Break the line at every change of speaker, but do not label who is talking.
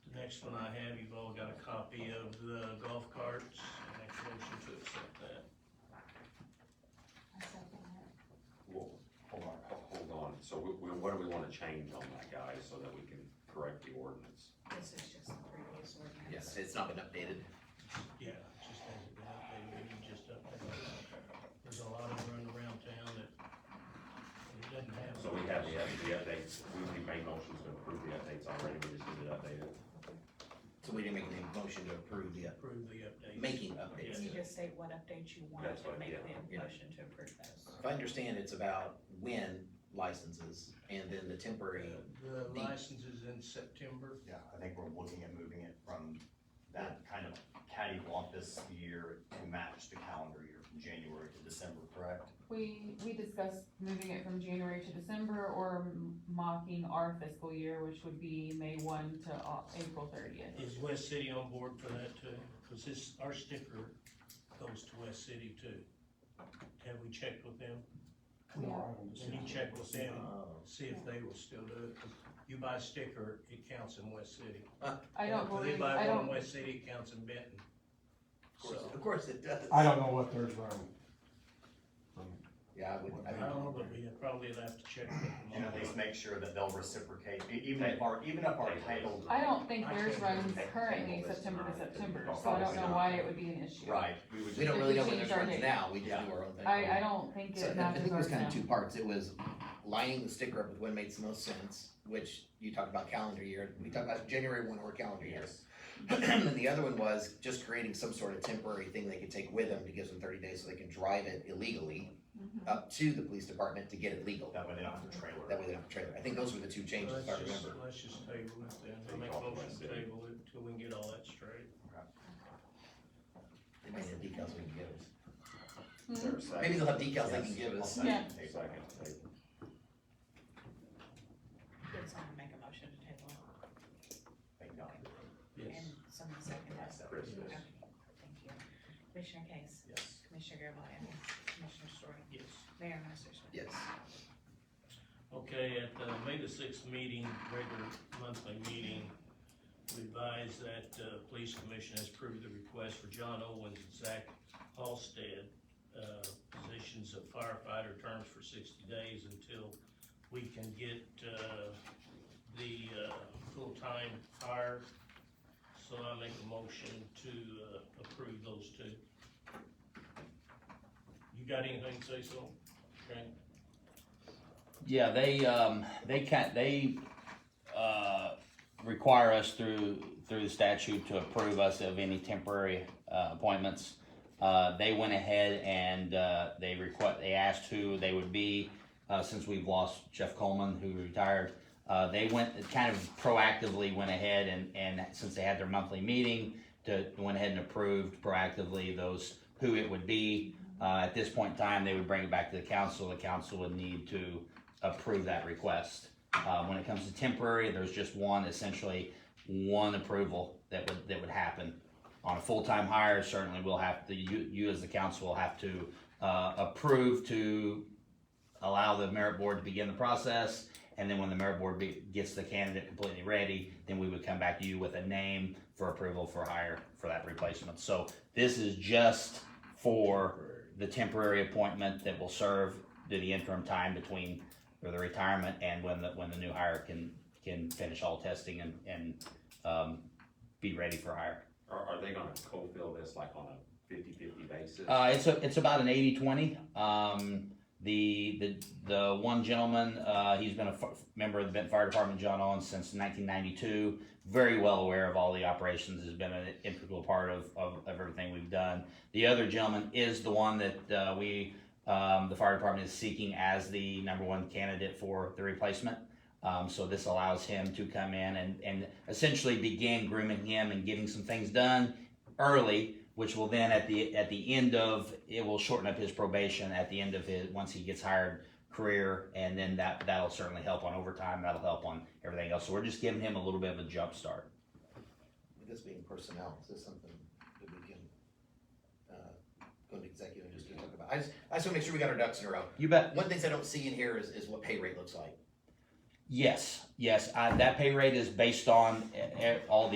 next one I have, you've all got a copy of the golf carts, make a motion to accept that.
I second that.
Well, hold on, ho- hold on, so we, we, what do we wanna change on that, guy so that we can correct the ordinance?
This is just the previous ordinance.
Yes, it's not been updated.
Yeah, just hasn't been updated, we need just update it. There's a lot of running around town that it doesn't have.
So we have the, the updates, we, we made motions to approve the updates already, we just need it updated.
So we didn't make any motion to approve the, uh,
Approve the updates.
making
Yeah.
updates.
You just say what updates you want,
That's what-
and make
yeah,
the
yeah.
motion to approve those.
If I understand, it's about when licenses and then the temporary,
The license is in September.
Yeah, I think we're looking at moving it from that kind of cattywampus year to match the calendar year from January to December, correct?
We, we discussed moving it from January to December or m- mocking our fiscal year, which would be May one to Au- April thirtieth.
Is West City on board for that too? Cause this, our sticker goes to West City too. Have we checked with them? Can you check with
um,
them, see if they will still do it? 'Cause You buy a sticker, it counts in West City.
I don't
If they
believe,
buy one
I
in
don't,
West City, it counts in Benton.
of course,
So,
of course it does.
I don't know what theirs are.
Yeah, I would,
I
I
don't know, but we probably will have to check with them.
And at least make sure that they'll reciprocate, e- even if our, even if our title,
I don't think
I
theirs
think-
runs
Okay.
currently September to September, so I don't know why it would be an issue.
right, we would
we
just,
don't really know when
Change
it
our
runs
date.
now, we just
Yeah.
do our own thing.
I, I don't think
So
it
I- I
matches
think it was
ours
kind
now.
of two parts. It was lining the sticker up with when makes the most sense, which you talked about calendar year. We talked about January one or calendar year.
yes,
And the other one was just creating some sort of temporary thing they could take with them to give them thirty days so they can drive it illegally
Mhm.
up to the police department to get it legal.
that way they don't have to trailer.
That way they don't have a trailer. I think those were the two changes,
Let's
if I
just,
remember.
let's just table it then. I make a motion to table it till we can get all that straight.
They may have decals we can give us.
Is there a second?
Maybe they'll have decals they can
Yes.
give us.
I'll
Yeah.
second table.
Second, table.
Did someone make a motion to table it?
Thank God.
Yes.
And someone second that?
Chris, yes.
Okay, Thank you. Commissioner Case?
yes.
Commissioner Garvelia? Commissioner Story?
Yes.
Mayor Massersohn?
Yes.
Okay, at the May the sixth meeting, regular monthly meeting, we advise that, uh, police commission has approved the request for John Owens and Zach Halstead, uh, positions of firefighter terms for sixty days until we can get, uh, the, uh, full-time hire. So I make a motion to, uh, approve those two. You got anything to say, so? Okay.
Yeah, they, um, they can't, they, uh, require us through, through the statute to approve us of any temporary, uh, appointments. Uh, they went ahead and, uh, they requ- they asked who they would be, uh, since we've lost Jeff Coleman, who retired. Uh, they went, kind of proactively went ahead and, and since they had their monthly meeting, to, went ahead and approved proactively those, who it would be. Uh, at this point in time, they would bring it back to the council, the council would need to, approve that request. Uh, when it comes to temporary, there's just one, essentially one approval that would, that would happen. On a full-time hire, certainly we'll have to, you, you as the council will have to, uh, approve to allow the merit board to begin the process. And then when the merit board be, gets the candidate completely ready, then we would come back to you with a name for approval for hire for that replacement. So this is just for the temporary appointment that will serve to the interim time between or the retirement and when the, when the new hire can, can finish all testing and, and, um, be ready for hire.
Are, are they gonna co-fill this like on a fifty-fifty basis?
Uh, it's, a- it's about an eighty, twenty. Um, the, the, the one gentleman, uh, he's been a f- member of the Benton Fire Department, John Owens, since nineteen ninety-two. Very well aware of all the operations, has been an integral part of, of, of everything we've done. The other gentleman is the one that, uh, we, um, the fire department is seeking as the number one candidate for the replacement. Um, so this allows him to come in and, and essentially begin grooming him and getting some things done early, which will then at the at the end of it will shorten up his probation at the end of his once he gets hired career, and then that that'll certainly help on overtime. That'll help on everything else. So we're just giving him a little bit of a jump start.
With this being personnel, is this something that we can, uh, go into executive and just talk about? I just, I just wanna make sure we got our ducks in a row.
You bet.
One of the things I don't see in here is, is what pay rate looks like.
Yes, yes. I, that pay rate is based on eh, eh, all the.